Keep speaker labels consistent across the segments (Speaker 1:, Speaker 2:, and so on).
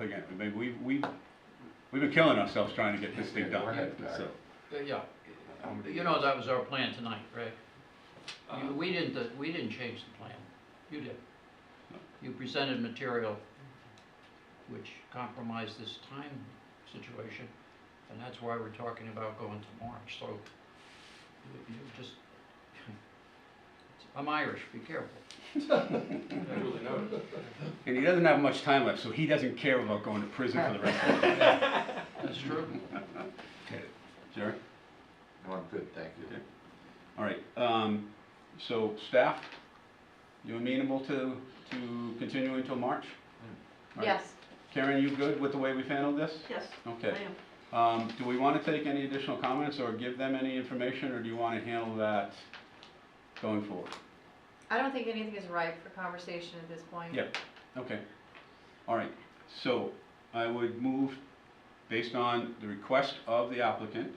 Speaker 1: again, I mean, we, we, we've been killing ourselves trying to get this thing
Speaker 2: We're
Speaker 1: done,
Speaker 2: headed back.
Speaker 1: so.
Speaker 3: Uh, Yeah,
Speaker 2: How many
Speaker 3: you know, that was our plan tonight, Rick. You- We didn't, uh, we didn't change the plan. Uh-huh. You did. You presented material which compromised this time situation, and that's why we're talking about going to March, so you- you just, I'm Irish, be careful.
Speaker 4: Duly noted.
Speaker 1: And he doesn't have much time left, so he doesn't care about going to prison for the rest of his life.
Speaker 3: That's true.
Speaker 1: Jerry?
Speaker 2: No, I'm good, thank you.
Speaker 1: Okay. All right, um, so staff, you amenable to, to continuing until March? All right.
Speaker 5: Yes,
Speaker 1: Karen, you good with the way we've handled this?
Speaker 5: yes, I
Speaker 1: Okay.
Speaker 5: am.
Speaker 1: Um, do we want to take any additional comments or give them any information, or do you want to handle that going forward?
Speaker 5: I don't think anything is ripe for conversation at this point.
Speaker 1: Yep, okay. All right, so I would move, based on the request of the applicant,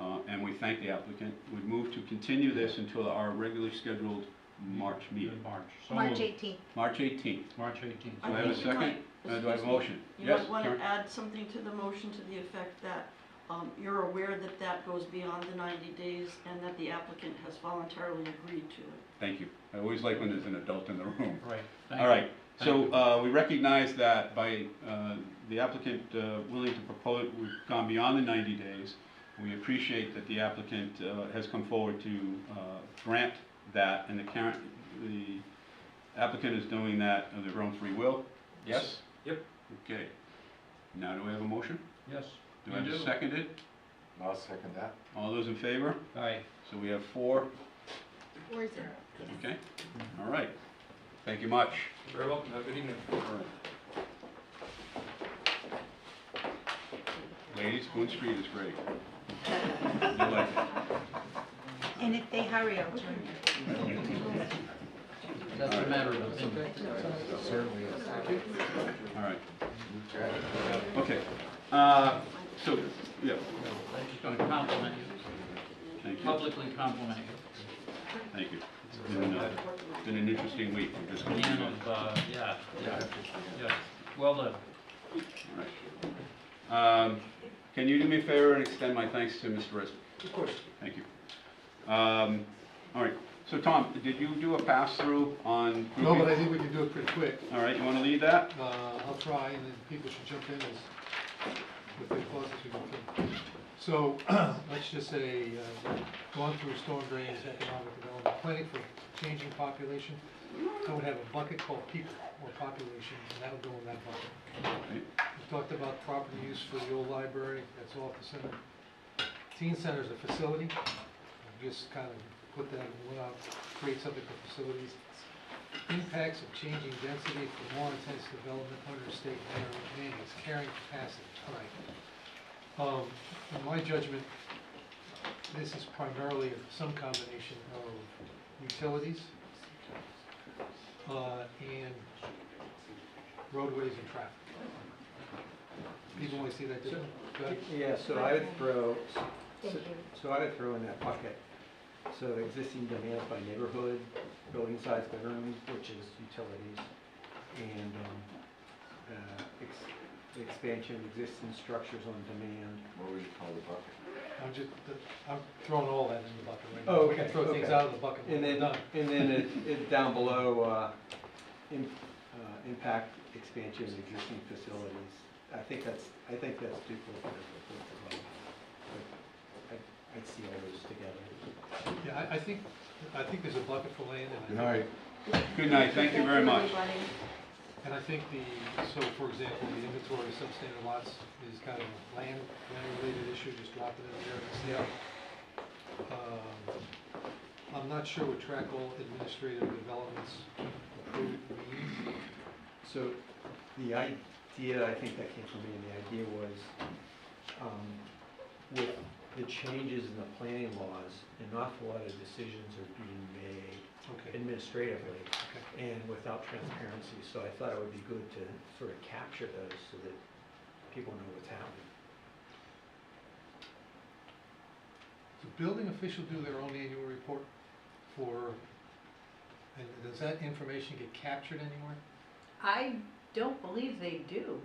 Speaker 1: uh, and we thank the applicant, would move to continue this until our regularly scheduled March meeting,
Speaker 3: March. So
Speaker 6: March
Speaker 3: moved.
Speaker 6: 18th.
Speaker 1: March 18th.
Speaker 3: March eighteenth.
Speaker 1: Do I have a
Speaker 6: think you
Speaker 1: second?
Speaker 6: might-
Speaker 1: Uh, Do I have a
Speaker 6: excuse me,
Speaker 1: motion?
Speaker 6: You
Speaker 1: Yes,
Speaker 6: might want
Speaker 1: Karen?
Speaker 6: to add something to the motion to the effect that um, you're aware that that goes beyond the 90 days and that the applicant has voluntarily agreed to it.
Speaker 1: Thank you. I always like when there's an adult in the room.
Speaker 3: Right. Thank
Speaker 1: All
Speaker 3: you.
Speaker 1: right, so
Speaker 3: Thank
Speaker 1: uh, we recognize that by uh, the applicant uh, willing to propose, we've gone beyond the 90 days. We appreciate that the applicant uh, has come forward to uh, grant that, and the current, the applicant is doing that of their own free will? Yes?
Speaker 4: Yep.
Speaker 1: Okay. Now, do we have a motion?
Speaker 3: Yes.
Speaker 1: Do
Speaker 3: You
Speaker 1: I have a
Speaker 3: do.
Speaker 1: second it?
Speaker 2: I'll second that.
Speaker 1: All those in favor?
Speaker 3: Aye.
Speaker 1: So we have four,
Speaker 5: Or is it?
Speaker 1: okay? All right. Thank you much.
Speaker 4: Very welcome, have a good evening.
Speaker 1: Ladies, Boone Street is great. You like it.
Speaker 6: And if they hurry, I'll
Speaker 3: That's a matter of opinion.
Speaker 2: Certainly is.
Speaker 1: All right,
Speaker 2: Okay.
Speaker 1: okay. Uh, So, yeah,
Speaker 3: I'm just gonna compliment you,
Speaker 1: thank you,
Speaker 3: publicly compliment you.
Speaker 1: thank you. It's been, uh, been an interesting week, I'm just going to,
Speaker 3: Man of, uh, yeah, yeah, yeah, well done.
Speaker 1: Um, Can you do me a favor and extend my thanks to Mr. Resnick?
Speaker 2: Of course.
Speaker 1: Thank you. Um, All right, so Tom, did you do a pass-through on grouping?
Speaker 7: No, but I think we can do it pretty quick.
Speaker 1: All right, you want to lead that?
Speaker 7: Uh, I'll try, and then people should jump in as, with their clauses we go through. So, let's just say, uh, going through storm drains, economic development, planning for changing population. I would have a bucket called people or population, and that would go in that bucket.
Speaker 1: Right.
Speaker 7: We talked about property use for the old library, that's off the center. Teen center is a facility, I just kind of put that, in one out, create something for facilities. Impacts of changing density for more intense development under state management is carrying capacity, all right. Um, in my judgment, this is primarily some combination of utilities, uh, and roadways and traffic. People always see that different. Go ahead.
Speaker 8: Yeah, so I would throw,
Speaker 5: Thank you.
Speaker 8: so I would throw in that bucket, so existing demands by neighborhood, building size, bedrooms, which is utilities, and, um, uh, ex- the expansion of existing structures on demand.
Speaker 2: What would you call the bucket?
Speaker 7: I'm just, I'm throwing all that in the bucket right now.
Speaker 8: Oh,
Speaker 7: We can
Speaker 8: okay,
Speaker 7: throw things
Speaker 8: okay.
Speaker 7: out of the bucket when
Speaker 8: And
Speaker 7: we're
Speaker 8: then,
Speaker 7: done.
Speaker 8: and then it, it down below, uh, im- uh, impact expansion of existing facilities. I think that's, I think that's duplicative of what's above. But I- I'd see all those together.
Speaker 7: Yeah, I, I think, I think there's a bucket for land and I
Speaker 2: Good
Speaker 7: think.
Speaker 2: night.
Speaker 1: Good night, thank you very much.
Speaker 6: everybody.
Speaker 7: And I think the, so for example, the inventory of substandard lots is kind of a land, land-related issue, just drop it in there. Um, I'm not sure what track all administrative developments approved means.
Speaker 8: So the idea, I think that came from me, and the idea was, um, with the changes in the planning laws, an awful lot of decisions are being made
Speaker 7: Okay,
Speaker 8: administratively and without transparency, so I thought it would be good to sort of capture those so that people know what's happening.
Speaker 7: the building official do their own annual report for, and does that information get captured anywhere?
Speaker 5: I don't believe they do.